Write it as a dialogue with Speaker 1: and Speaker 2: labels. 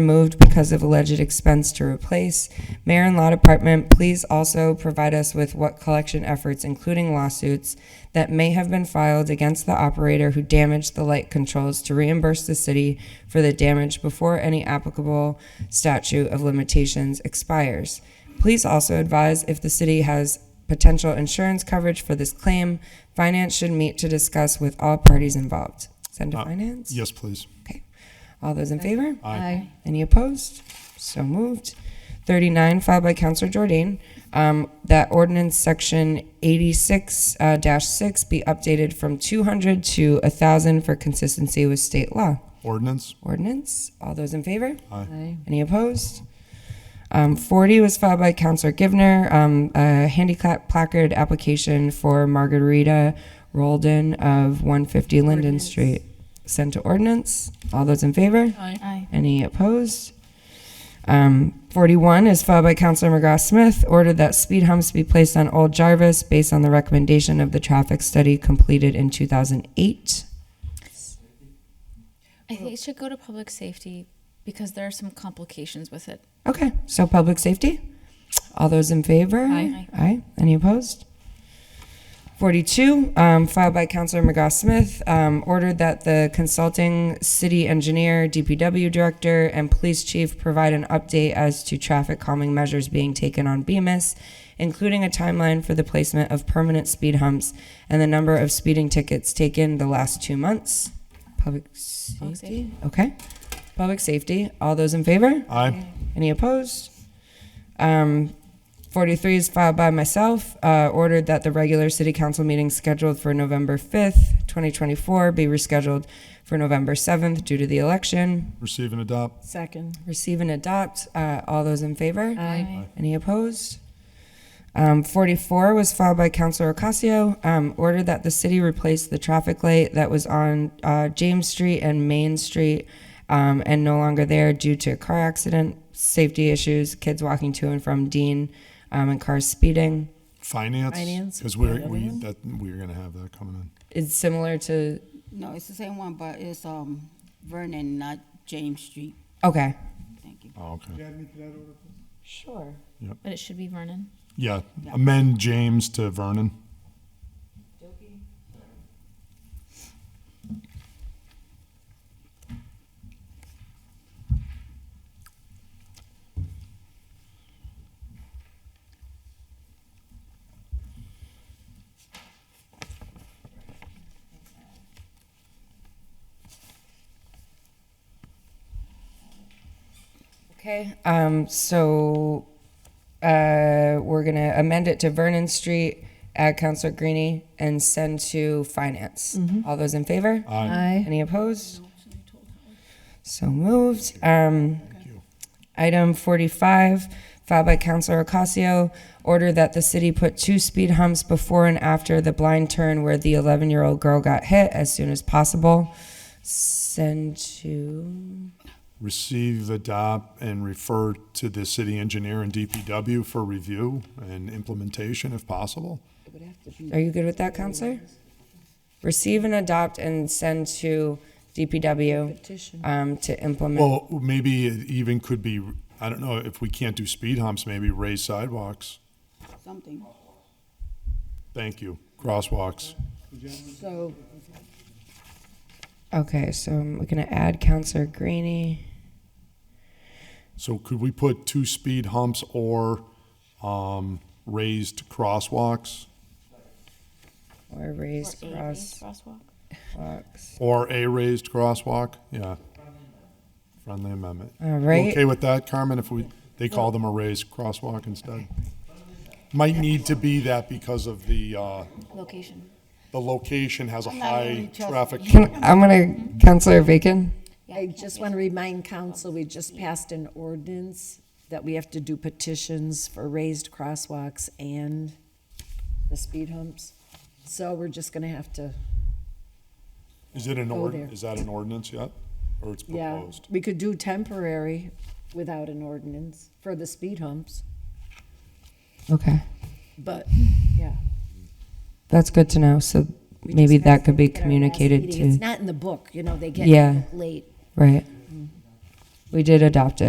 Speaker 1: removed because of alleged expense to replace. Mayor and Law Department, please also provide us with what collection efforts, including lawsuits, that may have been filed against the operator who damaged the light controls to reimburse the city for the damage before any applicable statute of limitations expires. Please also advise if the city has potential insurance coverage for this claim. Finance should meet to discuss with all parties involved. Send to finance?
Speaker 2: Yes, please.
Speaker 1: Okay. All those in favor?
Speaker 3: Aye.
Speaker 1: Any opposed? So moved. 39, filed by Counselor Jordan, um, that ordinance section 86 uh, dash 6 be updated from 200 to 1,000 for consistency with state law.
Speaker 2: Ordinance?
Speaker 1: Ordinance, all those in favor?
Speaker 3: Aye.
Speaker 1: Any opposed? Um, 40 was filed by Counselor Givner, um, a handicap placard application for Margarita Rolden of 150 Linden Street. Sent to ordinance. All those in favor?
Speaker 3: Aye.
Speaker 1: Any opposed? Um, 41 is filed by Counselor McGrath Smith, ordered that speed humps be placed on Old Jarvis based on the recommendation of the traffic study completed in 2008.
Speaker 4: I think it should go to public safety because there are some complications with it.
Speaker 1: Okay, so public safety. All those in favor?
Speaker 4: Aye.
Speaker 1: Aye. Any opposed? 42, um, filed by Counselor McGrath Smith, um, ordered that the consulting city engineer, DPW director, and police chief provide an update as to traffic calming measures being taken on Bemis, including a timeline for the placement of permanent speed humps and the number of speeding tickets taken the last two months. Public safety?
Speaker 4: safety.
Speaker 1: Okay. Public safety. All those in favor?
Speaker 2: Aye.
Speaker 1: Any opposed? Um, 43 is filed by myself, uh, ordered that the regular city council meeting scheduled for November 5th, 2024 be rescheduled for November 7th due to the election.
Speaker 2: Receive and adopt.
Speaker 3: Second.
Speaker 1: Receive and adopt. Uh, all those in favor?
Speaker 3: Aye.
Speaker 1: Any opposed? Um, 44 was filed by Counselor Ocasio, um, order that the city replace the traffic light that was on uh, James Street and Main Street um, and no longer there due to car accident, safety issues, kids walking to and from Dean, um, and cars speeding.
Speaker 2: Finance?
Speaker 3: Finance,
Speaker 2: Because we're,
Speaker 3: another
Speaker 2: we,
Speaker 3: one?
Speaker 2: that, we're gonna have that coming in.
Speaker 1: It's similar to,
Speaker 5: No, it's the same one, but it's um Vernon, not James Street.
Speaker 1: okay.
Speaker 5: Thank you.
Speaker 2: Oh, okay.
Speaker 1: Sure.
Speaker 4: But it should be Vernon.
Speaker 2: Yeah, amend James to Vernon.
Speaker 1: Okay, um, so, uh, we're gonna amend it to Vernon Street, add Counselor Greenie, and send to Finance. All those in favor?
Speaker 2: Aye.
Speaker 3: Aye.
Speaker 1: Any opposed? So moved. Um,
Speaker 2: you.
Speaker 1: Item 45, filed by Counselor Ocasio, order that the city put two speed humps before and after the blind turn where the 11-year-old girl got hit as soon as possible. Send to,
Speaker 2: Receive, adopt, and refer to the city engineer and DPW for review and implementation if possible.
Speaker 1: are you good with that, Counselor? Receive and adopt and send to DPW
Speaker 3: Petition.
Speaker 1: um, to implement.
Speaker 2: Well, maybe it even could be, I don't know, if we can't do speed humps, maybe raise sidewalks.
Speaker 5: Something.
Speaker 2: Thank you. Crosswalks.
Speaker 5: So
Speaker 1: Okay, so I'm gonna add Counselor Greenie.
Speaker 2: So could we put two speed humps or um, raised crosswalks
Speaker 1: Or raised
Speaker 4: Or a raised
Speaker 1: cross
Speaker 4: Crosswalk.
Speaker 1: walks.
Speaker 2: or a raised crosswalk? Yeah. Friendly amendment.
Speaker 1: All
Speaker 2: You
Speaker 1: right.
Speaker 2: Okay with that, Carmen, if we, they call them a raised crosswalk instead? Might need to be that because of the, uh,
Speaker 4: Location.
Speaker 2: the location has a
Speaker 5: not
Speaker 2: high
Speaker 5: really just-
Speaker 2: traffic.
Speaker 1: Can, I'm gonna Counselor Bacon.
Speaker 3: I just want to remind council, we just passed an ordinance that we have to do petitions for raised crosswalks and the speed humps. So we're just going to have to,
Speaker 2: Is it an
Speaker 3: Go
Speaker 2: ord,
Speaker 3: there.
Speaker 2: is that an ordinance yet? Or it's
Speaker 3: yeah,
Speaker 2: proposed?
Speaker 3: we could do temporary without an ordinance for the speed humps,
Speaker 1: Okay,
Speaker 3: but, yeah.
Speaker 1: that's good to know. So
Speaker 3: we
Speaker 1: maybe
Speaker 3: just
Speaker 1: that
Speaker 3: passed
Speaker 1: could
Speaker 3: it
Speaker 1: be
Speaker 3: at our last
Speaker 1: communicated
Speaker 3: meeting.
Speaker 1: to
Speaker 3: It's not in the book, you know, they
Speaker 1: Yeah.
Speaker 3: get late.
Speaker 1: right. We did adopt it.